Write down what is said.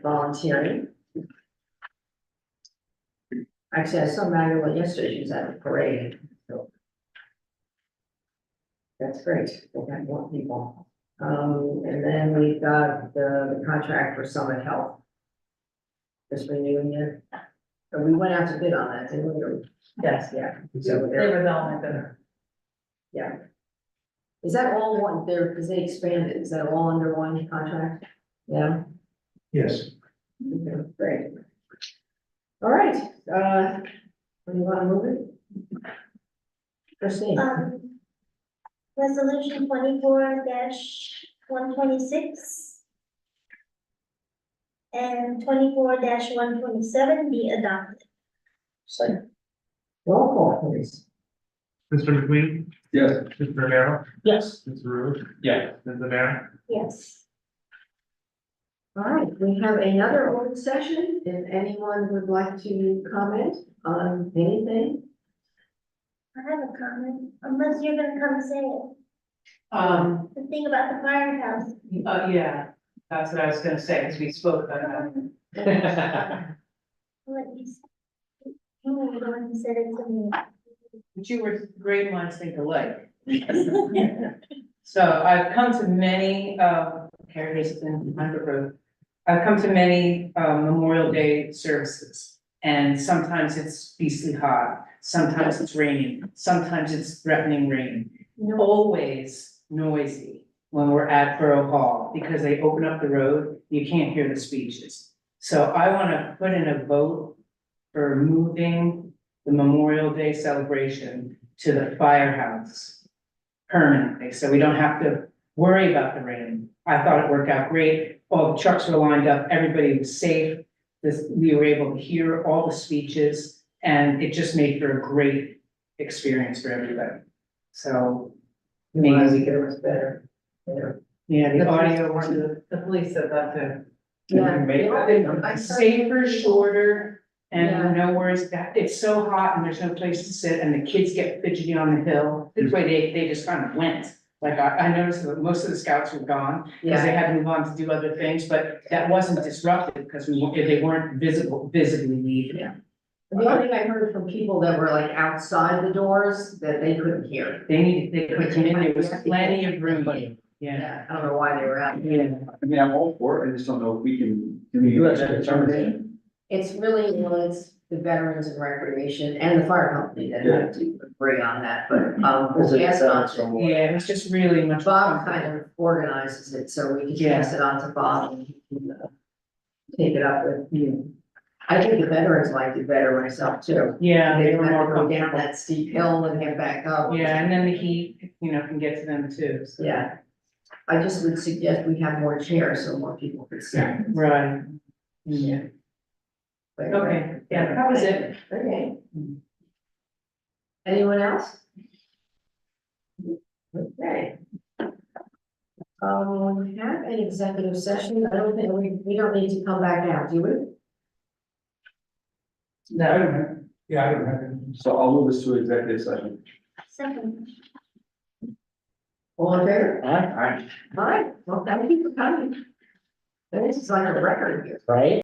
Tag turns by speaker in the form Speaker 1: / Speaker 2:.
Speaker 1: volunteering. Actually, I saw Magdalene yesterday, she was at the parade, so. That's great, we got more people. Um, and then we've got the, the contract for Summit Health. Just renewing it. But we went out to bid on that, didn't we?
Speaker 2: Yes,
Speaker 1: Yeah. so
Speaker 2: they
Speaker 1: they're-
Speaker 2: were the only bidder.
Speaker 1: Yeah. Is that all one, there, because they expanded, is that all under one contract? Yeah,
Speaker 3: Yes,
Speaker 1: Okay, great. All right, uh, do you wanna move it? Christine,
Speaker 4: Um, Resolution twenty-four one twenty-six. And twenty-four one twenty-seven be adopted.
Speaker 1: roll call please.
Speaker 5: Mr. McQueen?
Speaker 3: Yes.
Speaker 5: Mr. Romero?
Speaker 2: Yes.
Speaker 5: Mr. Ruth?
Speaker 3: yeah,
Speaker 5: Mr. Mayor?
Speaker 4: Yes.
Speaker 1: All right, we have another open session, if anyone would like to comment on anything.
Speaker 4: I have a comment, unless you're gonna come say it,
Speaker 2: Um,
Speaker 4: the thing about the firehouse.
Speaker 2: uh, yeah, that's what I was gonna say, because we spoke about
Speaker 4: um,
Speaker 2: that.
Speaker 4: Let me. see. You were the one who said it to me.
Speaker 2: But you were great minds think alike. So I've come to many, um, Harry's in Hunter Road. I've come to many, um, Memorial Day services. And sometimes it's beastly hot, sometimes it's raining, sometimes it's threatening rain. Always noisy when we're at Borough Hall, because they open up the road, you can't hear the speeches. So I wanna put in a vote for moving the Memorial Day celebration to the firehouse permanently, so we don't have to worry about the rain. I thought it worked out great, all the trucks were lined up, everybody was safe. This, we were able to hear all the speeches, and it just made for a great experience for everybody. So,
Speaker 1: Realize it was better.
Speaker 2: yeah, the
Speaker 1: The police
Speaker 2: audio was
Speaker 6: The police said that too.
Speaker 1: Yeah.
Speaker 6: Make that-
Speaker 1: I saw-
Speaker 2: safer, shorter,
Speaker 1: Yeah.
Speaker 2: and no worries that, it's so hot and there's no place to sit, and the kids get fidgety on the hill. This way, they, they just kind of went, like, I, I noticed that most of the scouts were gone, because
Speaker 1: Yeah,
Speaker 2: they had to move on to do other things, but that wasn't disruptive because we, weren't- they weren't visible, visibly leaving.
Speaker 1: the only thing I heard from people that were like outside the doors, that they couldn't hear.
Speaker 2: They needed, they could come in, there was plenty of room, yeah,
Speaker 1: Yeah, I don't know why they were out.
Speaker 2: yeah.
Speaker 3: I mean, I'm all for it, I just don't know if we can.
Speaker 6: You have that determination.
Speaker 1: It's really, well, it's the Veterans and Recreation and the fire company that have to agree on that, but, um,
Speaker 2: uh,
Speaker 1: we'll pass it on. to-
Speaker 2: Yeah, it was just really much.
Speaker 1: Bob kind of organizes it, so we can pass it on to Bob and he can, uh, take it up with.
Speaker 2: Yeah.
Speaker 1: I think the veterans liked it better myself too.
Speaker 2: Yeah,
Speaker 1: They
Speaker 2: they were
Speaker 1: didn't have to
Speaker 2: more
Speaker 1: go down
Speaker 2: comfortable.
Speaker 1: that steep hill and then back up.
Speaker 2: Yeah, and then the heat, you know, can get to them too, so.
Speaker 1: Yeah. I just would suggest we have more chairs so more people could sit.
Speaker 2: Right. Yeah,
Speaker 1: But- uh,
Speaker 2: okay, yeah, that was it.
Speaker 1: Okay. Anyone else? Okay. Um, we have an executive session, I don't think, we, we don't need to come back out, do we?
Speaker 3: I
Speaker 2: No.
Speaker 3: don't have,
Speaker 5: Yeah, I don't have any.
Speaker 3: so I'll move this to executive session.
Speaker 4: Second.
Speaker 1: All in favor?
Speaker 6: Huh?
Speaker 3: All right.
Speaker 1: All right, well, thank you for coming. This is like a record here.
Speaker 6: Right?